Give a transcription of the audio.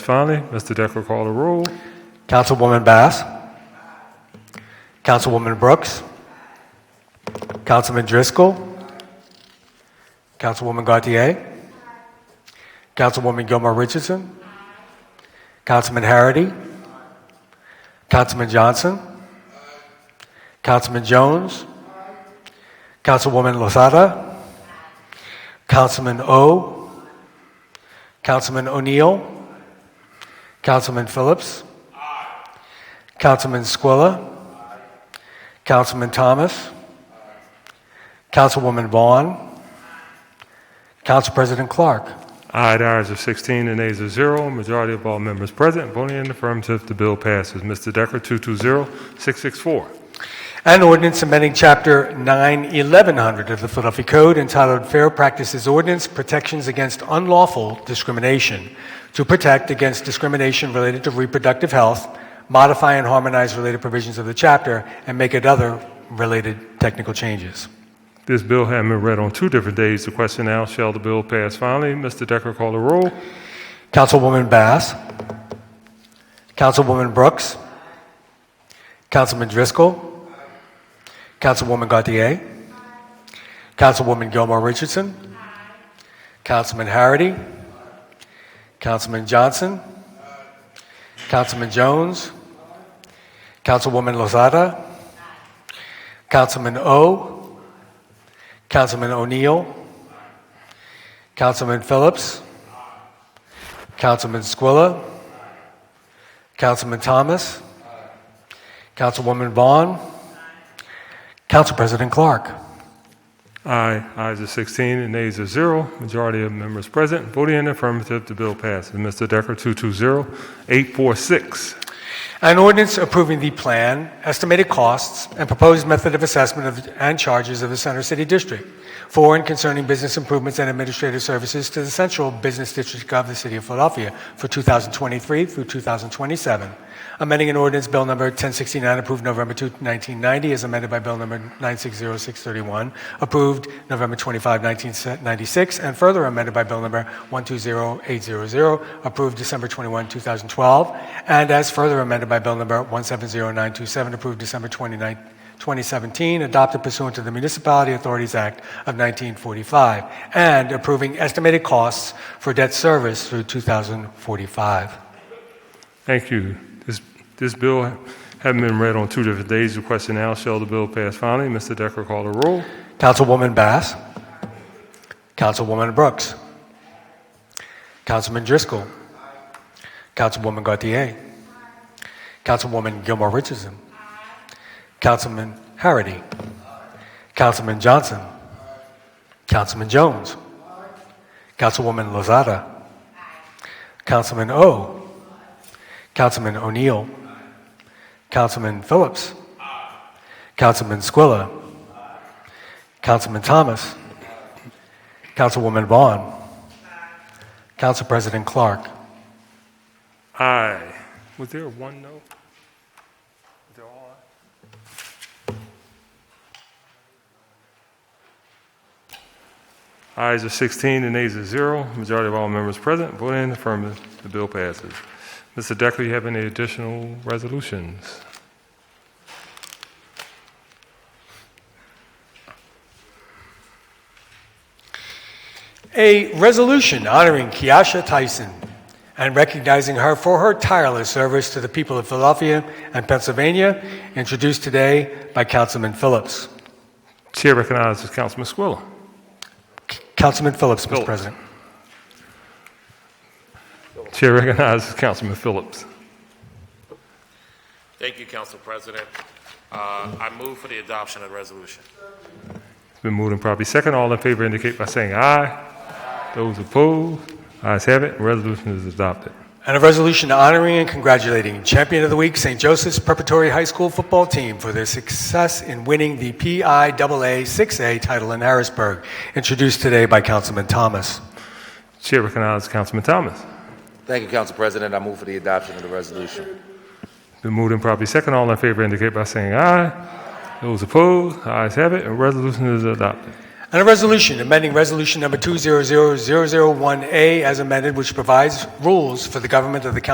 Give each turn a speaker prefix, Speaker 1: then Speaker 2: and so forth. Speaker 1: Finally, Mr. Decker called a roll.
Speaker 2: Councilwoman Bass. Councilwoman Brooks. Councilman Driscoll. Councilwoman Gautier. Councilwoman Gilmore Richardson. Councilman Harity. Councilman Johnson. Councilman Jones. Councilwoman Lozada. Councilman O. Councilman O'Neill. Councilman Phillips. Councilman Squilla. Councilman Thomas. Councilwoman Vaughn. Council President Clark.
Speaker 1: Aye, the ayes are 16 and nays are 0. Majority of all members present voting in the affirmative, the bill passes. Mr. Decker, 220-664.
Speaker 2: An ordinance amending Chapter 91100 of the Philadelphia Code entitled Fair Practices Ordinance Protections Against Unlawful Discrimination to protect against discrimination related to reproductive health, modify and harmonize related provisions of the chapter, and make it other related technical changes.
Speaker 1: This bill having been read on two different days, the question now, shall the bill pass finally? Mr. Decker called a roll.
Speaker 2: Councilwoman Bass. Councilwoman Brooks. Councilman Driscoll. Councilwoman Gauthier. Councilwoman Gilmore Richardson. Councilman Harity. Councilman Johnson. Councilman Jones. Councilwoman Lozada. Councilman O. Councilman O'Neill. Councilman Phillips. Councilman Squilla. Councilman Thomas. Councilwoman Vaughn. Council President Clark.
Speaker 1: Aye, ayes are 16 and nays are 0. Majority of members present voting in the affirmative, the bill passes. Mr. Decker, 220-846.
Speaker 2: An ordinance approving the plan, estimated costs, and proposed method of assessment of, and charges of the Center City District for and concerning business improvements and administrative services to the Central Business District of the City of Philadelphia for 2023 through 2027. Amending an ordinance bill number 1069 approved November 2, 1990, as amended by bill number 960631, approved November 25, 1996, and further amended by bill number 120800, approved December 21, 2012, and as further amended by bill number 170927, approved December 29, 2017, adopted pursuant to the Municipality Authorities Act of 1945, and approving estimated costs for debt service through 2045.
Speaker 1: Thank you. This, this bill having been read on two different days, the question now, shall the bill pass finally? Mr. Decker called a roll.
Speaker 2: Councilwoman Bass. Councilwoman Brooks. Councilman Driscoll. Councilwoman Gauthier. Councilwoman Gilmore Richardson. Councilman Harity. Councilman Johnson. Councilman Jones. Councilwoman Lozada. Councilman O. Councilman O'Neill. Councilman Phillips. Councilman Squilla. Councilman Thomas. Councilwoman Vaughn. Council President Clark.
Speaker 1: Aye. Was there one no? Was there all aye? Ayes are 16 and nays are 0. Majority of all members present voting in the affirmative. The bill passes. Mr. Decker, you have any additional resolutions?
Speaker 2: A resolution honoring Kiasha Tyson and recognizing her for her tireless service to the people of Philadelphia and Pennsylvania, introduced today by Councilman Phillips.
Speaker 1: Chair recognizes Councilman Squilla.
Speaker 2: Councilman Phillips, Mr.
Speaker 1: Phillips.
Speaker 2: President.
Speaker 1: Chair recognizes Councilman Phillips.
Speaker 3: Thank you, Council President. Uh, I move for the adoption of the resolution.
Speaker 1: It's been moved and properly second. All in favor indicate by saying aye. Those opposed, ayes have it. Resolution is adopted.
Speaker 2: And a resolution honoring and congratulating Champion of the Week St. Joseph's Preparatory High School football team for their success in winning the PIAA 6A title in Harrisburg, introduced today by Councilman Thomas.
Speaker 1: Chair recognizes Councilman Thomas.
Speaker 4: Thank you, Council President. I move for the adoption of the resolution.
Speaker 1: Been moved and properly second. All in favor indicate by saying aye. Those opposed, ayes have it. Resolution is adopted.
Speaker 2: And a resolution amending Resolution Number 200001A as amended, which provides rules for the government of the County